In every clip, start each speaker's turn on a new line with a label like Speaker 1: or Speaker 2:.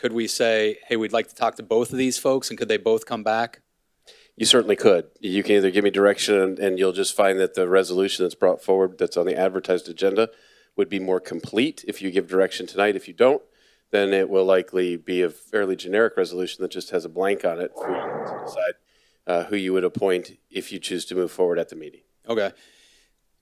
Speaker 1: Could we say, hey, we'd like to talk to both of these folks and could they both come back?
Speaker 2: You certainly could. You can either give me direction and, and you'll just find that the resolution that's brought forward that's on the advertised agenda would be more complete if you give direction tonight. If you don't, then it will likely be a fairly generic resolution that just has a blank on it for you to decide uh, who you would appoint if you choose to move forward at the meeting.
Speaker 1: Okay.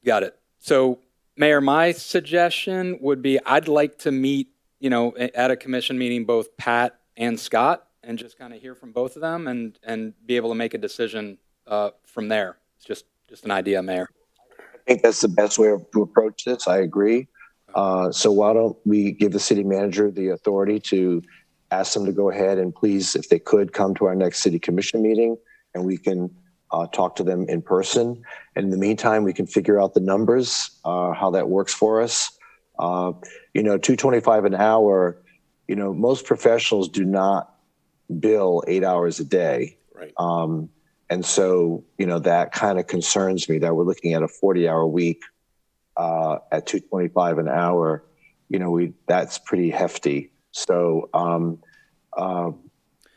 Speaker 1: Got it. So, Mayor, my suggestion would be I'd like to meet, you know, a- at a commission meeting, both Pat and Scott, and just kind of hear from both of them and, and be able to make a decision uh, from there. It's just, just an idea, Mayor.
Speaker 3: I think that's the best way to approach this. I agree. Uh, so why don't we give the city manager the authority to ask them to go ahead and please, if they could, come to our next city commission meeting and we can uh, talk to them in person. And in the meantime, we can figure out the numbers, uh, how that works for us. Uh, you know, 225 an hour, you know, most professionals do not bill eight hours a day.
Speaker 2: Right.
Speaker 3: Um, and so, you know, that kind of concerns me that we're looking at a 40 hour week uh, at 225 an hour. You know, we that's pretty hefty. So um, uh,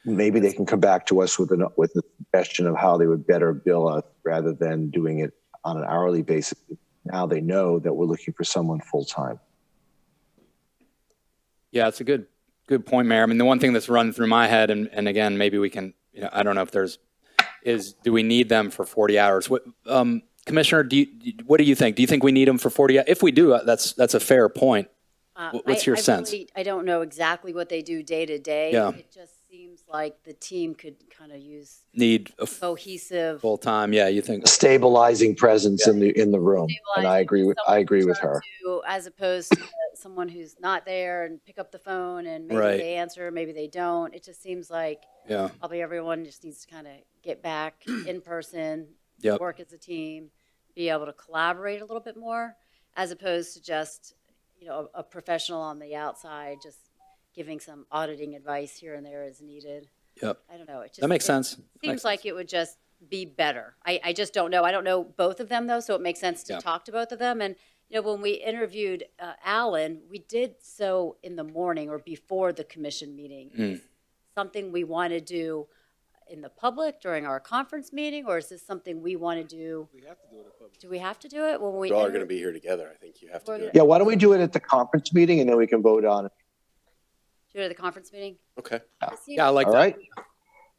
Speaker 3: maybe they can come back to us with an with a suggestion of how they would better bill us rather than doing it on an hourly basis. Now they know that we're looking for someone full time.
Speaker 1: Yeah, it's a good, good point, Mayor. I mean, the one thing that's run through my head, and, and again, maybe we can, you know, I don't know if there's, is do we need them for 40 hours? What, um, Commissioner, do you, do- what do you think? Do you think we need them for 40? hou- If we do, uh, that's, that's a fair point.
Speaker 4: Uh,
Speaker 1: Wh- what's
Speaker 4: I-
Speaker 1: your
Speaker 4: I
Speaker 1: sense?
Speaker 4: really- I don't know exactly what they do day to day.
Speaker 1: Yeah.
Speaker 4: It just seems like the team could kind of use
Speaker 1: Need a
Speaker 4: Oh. cohesive.
Speaker 1: full time. Yeah, you think?
Speaker 3: Stabilizing presence in the in the room, and I
Speaker 4: stabilizing
Speaker 3: agree with I
Speaker 4: someone to
Speaker 3: agree with
Speaker 4: turn
Speaker 3: her.
Speaker 4: to As opposed to someone who's not there and pick up the phone and maybe
Speaker 1: Right.
Speaker 4: they answer, maybe they don't. It just seems like
Speaker 1: Yeah.
Speaker 4: probably everyone just needs to kind of get back in person,
Speaker 1: Yep.
Speaker 4: work as a team, be able to collaborate a little bit more, as opposed to just, you know, a, a professional on the outside just giving some auditing advice here and there as needed.
Speaker 1: Yep.
Speaker 4: I don't know. It just
Speaker 1: That makes
Speaker 4: it
Speaker 1: sense. That makes
Speaker 4: Seems like it would just be better. I, I just don't know. I don't know both of them though, so it makes sense to
Speaker 1: Yeah.
Speaker 4: talk to both of them. And you know, when we interviewed uh, Alan, we did so in the morning or before the commission meeting.
Speaker 1: Mm.
Speaker 4: Is Something we want to do in the public during our conference meeting, or is this something we want to do? We have to do it. Do we have to do it when we?
Speaker 2: You all are
Speaker 4: inter-
Speaker 2: going to be here together. I think you have to do it.
Speaker 3: Yeah, why don't we do it at the conference meeting and then we can vote on it.
Speaker 4: Do it at the conference meeting?
Speaker 2: Okay.
Speaker 4: Christine?
Speaker 1: Yeah, I like
Speaker 3: All
Speaker 1: that.
Speaker 3: right.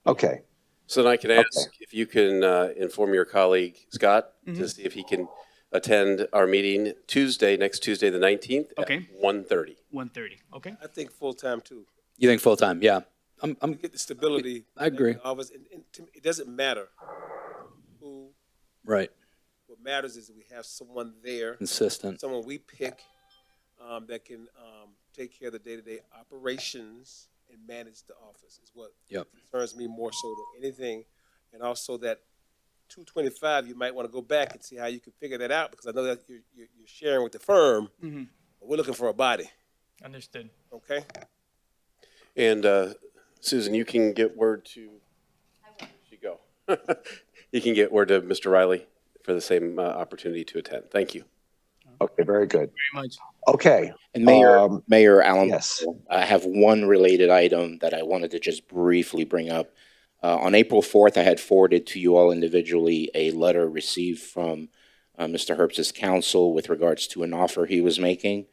Speaker 3: Okay.
Speaker 2: So then I can ask if you can uh, inform your colleague Scott to see if he can attend our meeting Tuesday, next Tuesday, the 19th
Speaker 5: Okay.
Speaker 2: at 1:30.
Speaker 5: 130, okay?
Speaker 6: I think full-time too.
Speaker 1: You think full time? Yeah. I'm, I'm,
Speaker 6: Get the stability.
Speaker 1: I agree.
Speaker 6: that the Office, and, and to me, it doesn't matter who,
Speaker 1: right.
Speaker 6: what matters is we have someone there,
Speaker 1: Consistent.
Speaker 6: someone we pick, um, that can, um, take care of the day-to-day operations and manage the office is what
Speaker 1: Yep.
Speaker 6: concerns me more so than anything. And also that two twenty-five, you might want to go back and see how you can figure that out, because I know that you're, you're, you're sharing with the firm. but We're looking for a body,
Speaker 5: Understood.
Speaker 6: okay?
Speaker 2: And uh, Susan, you can get word to, she go. You can get word to Mr. Riley for the same uh, opportunity to attend. Thank you.
Speaker 3: Okay. Very good.
Speaker 5: Very much.
Speaker 3: Okay.
Speaker 7: And Mayor,
Speaker 3: Um,
Speaker 7: Mayor Allen,
Speaker 3: yes.
Speaker 7: I have one related item that I wanted to just briefly bring up. Uh, on April 4th, I had forwarded to you all individually a letter received from uh, Mr. Herbst's counsel with regards to an offer he was making.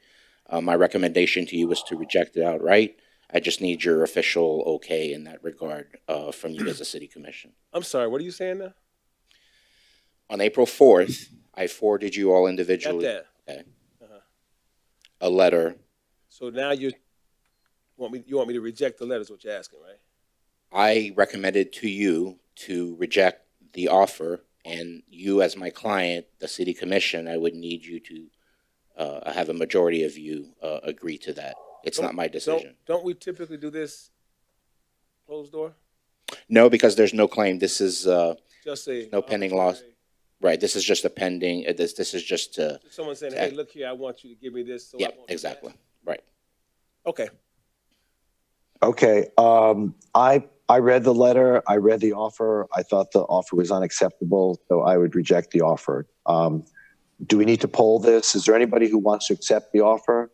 Speaker 7: Uh, my recommendation to you was to reject it outright. I just need your official okay in that regard uh, from you as a city commission.
Speaker 6: I'm sorry, what are you saying now?
Speaker 7: On April 4th, I forwarded you all
Speaker 6: Got
Speaker 7: individually
Speaker 6: that?
Speaker 7: a letter
Speaker 6: So now you want me, you want me to reject the letters, what you're asking, right?
Speaker 7: I recommended to you to reject the offer, and you, as my client, the city commission, I would need you to uh, have a majority of you uh, agree to that. It's not my decision.
Speaker 6: Don't, don't we typically do this closed door?
Speaker 7: No, because there's no claim. This is uh,
Speaker 6: Just say.
Speaker 7: No pending laws. right. This is just a pending. uh, This this is just a
Speaker 6: Someone saying, hey, look here, I want you to give me this, so I
Speaker 7: yeah,
Speaker 6: won't do that."
Speaker 7: exactly right.
Speaker 6: Okay,
Speaker 3: Okay. Um, I, I read the letter. I read the offer. I thought the offer was unacceptable, so I would reject the offer. Um, do we need to poll this? Is there anybody who wants to accept the offer?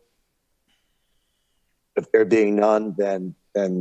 Speaker 3: If there being none, then and